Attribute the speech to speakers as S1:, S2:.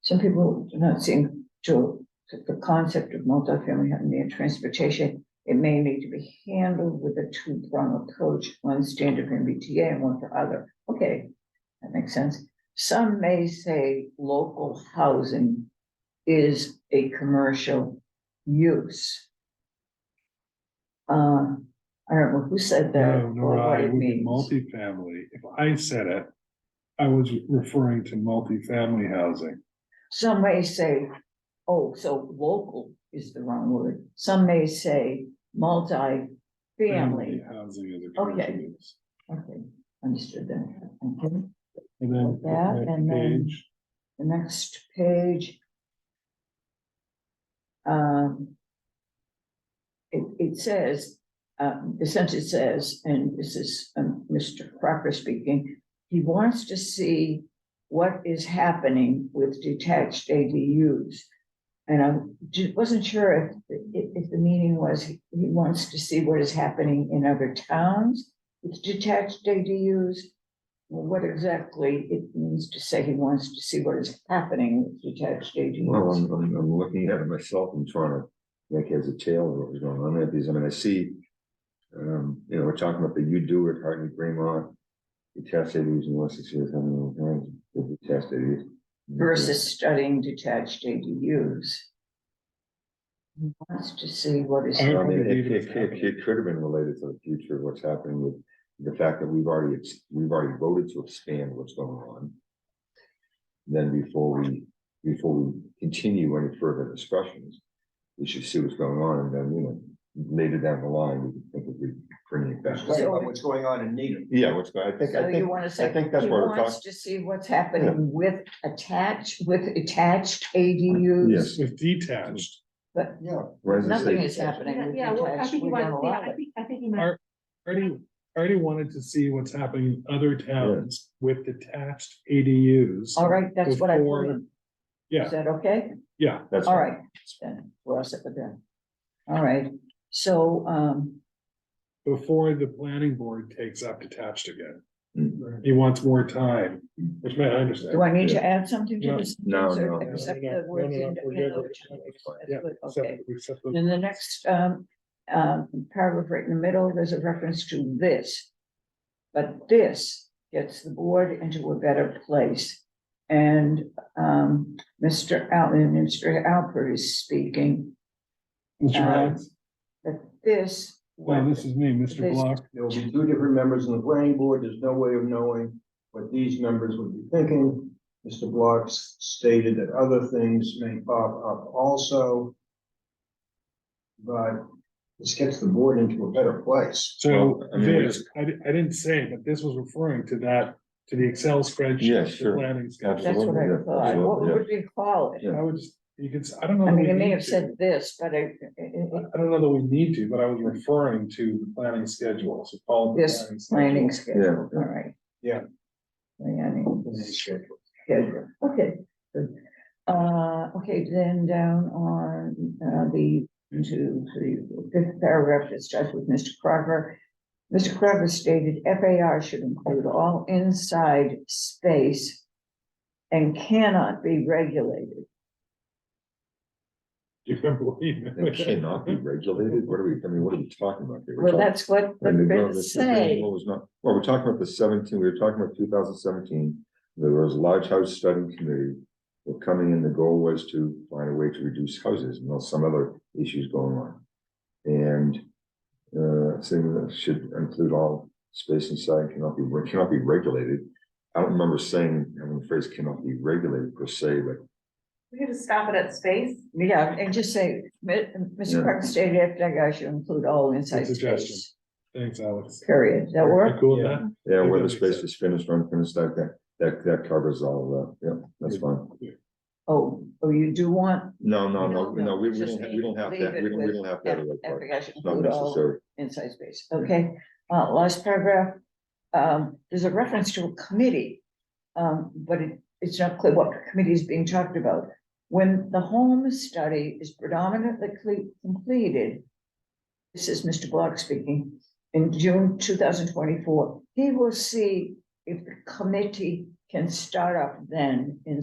S1: some people do not seem to, to the concept of multifamily having their transportation. It may need to be handled with a two-prong approach, one standard for MBTA and one for other. Okay, that makes sense. Some may say local housing is a commercial use. Uh, I don't know who said that
S2: No,
S1: or
S2: nor
S1: what
S2: I,
S1: it
S2: would be
S1: means.
S2: multifamily. If I said it, I was referring to multifamily housing.
S1: Some may say, oh, so local is the wrong word. Some may say
S2: Mm,
S1: multi-family.
S2: Housing is a commercial
S1: Okay.
S2: use.
S1: Okay, understood that. Okay.
S2: And then.
S1: That,
S2: next
S1: and then-
S2: page,
S1: The next page. Um. It, it says, um, the sentence says, and this is, um, Mr. Crocker speaking, he wants to see what is happening with detached ADUs. And I ju- wasn't sure if, if, if the meaning was, he he wants to see what is happening in other towns with detached ADUs. Well, What exactly it means to say he wants to see what is happening with detached
S3: Well,
S1: ADUs.
S3: I'm, I'm, I'm looking at it myself and trying to make heads or tail of what was going on there, because I mean, I see. Um, you know, we're talking about the you do it, Hartney, Greenmont. The test they use in Wessex here, how many times, the test they use.
S1: Versus studying detached ADUs. He wants to see what is.
S2: I
S3: So, I
S2: don't
S3: mean,
S2: think
S3: it,
S2: even it's
S3: it, it- it could have been related to the future, of what's happening with the fact that we've already, ex- we've already voted to expand what's going on. Then before we, before we continue any further discussions, we should see what's going on, and then, you know, later down the line, we can think of re- bringing it back.
S1: Right. about what's
S4: going on in Needham.
S3: Yeah, what's, going- I think,
S1: So
S3: I
S1: you
S3: think,
S1: want to say.
S3: I think that's
S1: he
S3: what we're
S1: wants To
S3: talking-
S1: see what's happening with attached, with attached ADUs,
S3: Yes.
S2: With detached,
S1: but
S4: Yeah.
S3: Rez is
S1: nothing
S3: saying,
S1: is happening
S5: Yeah,
S1: with
S5: yeah, well, I
S1: detached.
S5: think
S1: We
S5: he
S1: don't
S5: wants, yeah,
S1: allow
S5: I
S1: it.
S5: think, I think he meant,
S2: Our- already, already wanted to see what's happening in other towns with detached ADUs.
S1: All right, that's what I put in.
S2: Yeah,
S1: Is that okay?
S2: yeah,
S3: that's.
S1: All right, then, we're all set with that. All right, so, um,
S2: before the planning board takes up detached again.
S3: Mm.
S2: He wants more time, which may I understand.
S1: do I need to add something to this?
S3: No, no, no.
S1: Except
S2: No, no,
S1: the words
S2: no, no,
S1: in-
S2: we're
S1: in
S2: good.
S1: other towns.
S2: Yeah,
S1: That's good,
S2: Except-
S1: Okay,
S2: except the-
S1: then the next, um, um, paragraph right in the middle, there's a reference to this. But this gets the board into a better place. And, um, Mr. Allen, Mr. Alpert is speaking,
S2: Mr.
S1: uh,
S2: Rhodes?
S1: that this.
S2: Well, this is me, Mr.
S1: This-
S2: Block.
S4: There will be two different members on the planning board. There's no way of knowing what these members would be thinking. Mr. Block s- stated that other things may pop up also. But this gets the board into a better place.
S2: So
S3: Well, I mean, we
S2: this, I, di- I didn't say, but this was referring to that, to the Excel spreadsheet.
S3: Yeah,
S2: the
S3: sure.
S2: Planning schedule.
S1: That's what I
S3: Absolutely, yeah,
S1: thought, what
S3: absolutely,
S1: would we call it?
S3: Yeah.
S2: I would just, you could, s- I don't know.
S1: I
S2: that
S1: mean,
S2: we
S1: it may
S2: need
S1: have
S2: to.
S1: said this, but I, it- it-
S2: I don't know that we need to, but I was referring to the planning schedule, so call. it the
S1: this planning
S2: schedule.
S1: schedule,
S3: Yeah.
S1: all right.
S4: Yeah.
S1: Planning schedule, okay, good. Uh, okay, then down on, uh, the, to, the fifth paragraph, it starts with Mr. Crocker. Mr. Crocker stated FAR should include all inside space and cannot be regulated.
S2: You can believe it.
S3: It cannot be regulated, what are we, I mean, what are we talking about here? We're
S1: Well,
S3: talking-
S1: that's what the
S3: And the
S1: bit
S3: growth is-
S1: say.
S3: What was not, well, we're talking about the seventeen, we were talking about two thousand seventeen, there was a large house study committee. Were coming in, the goal was to find a way to reduce houses, and there's some other issues going on. And, uh, saying that should include all space inside cannot be, cannot be regulated. I don't remember saying, I mean, the phrase cannot be regulated per se, but
S5: we could just stop it at space.
S1: Yeah, and just say, "Mi- Mr.
S3: Yeah.
S1: Parker stated FDIC should include all inside
S2: Good suggestion.
S1: space,
S2: Thanks, Alex.
S1: period. Does That
S2: You
S1: work?
S2: Cool with that?
S3: yeah,
S2: Yeah,
S3: whether
S2: that makes
S3: space
S2: sense.
S3: is finished or unfinished, that, that, that, that covers all, uh, yeah, that's fine.
S1: Oh, oh, you do want
S3: No, no, no,
S1: No, no,
S3: no, we, we
S1: just
S3: don't, we don't have
S1: leave
S3: that,
S1: it
S3: we don't, we
S1: with
S3: don't have that. other part.
S1: FDIC should
S3: It's Not
S1: include all
S3: necessary.
S1: inside space, okay? Uh, last paragraph, um, there's a reference to a committee. Um, but it, it's not clear what committee is being talked about. When the home study is predominantly cle- completed. This is Mr. Block speaking, in June two thousand twenty-four, he will see if the committee can start up then in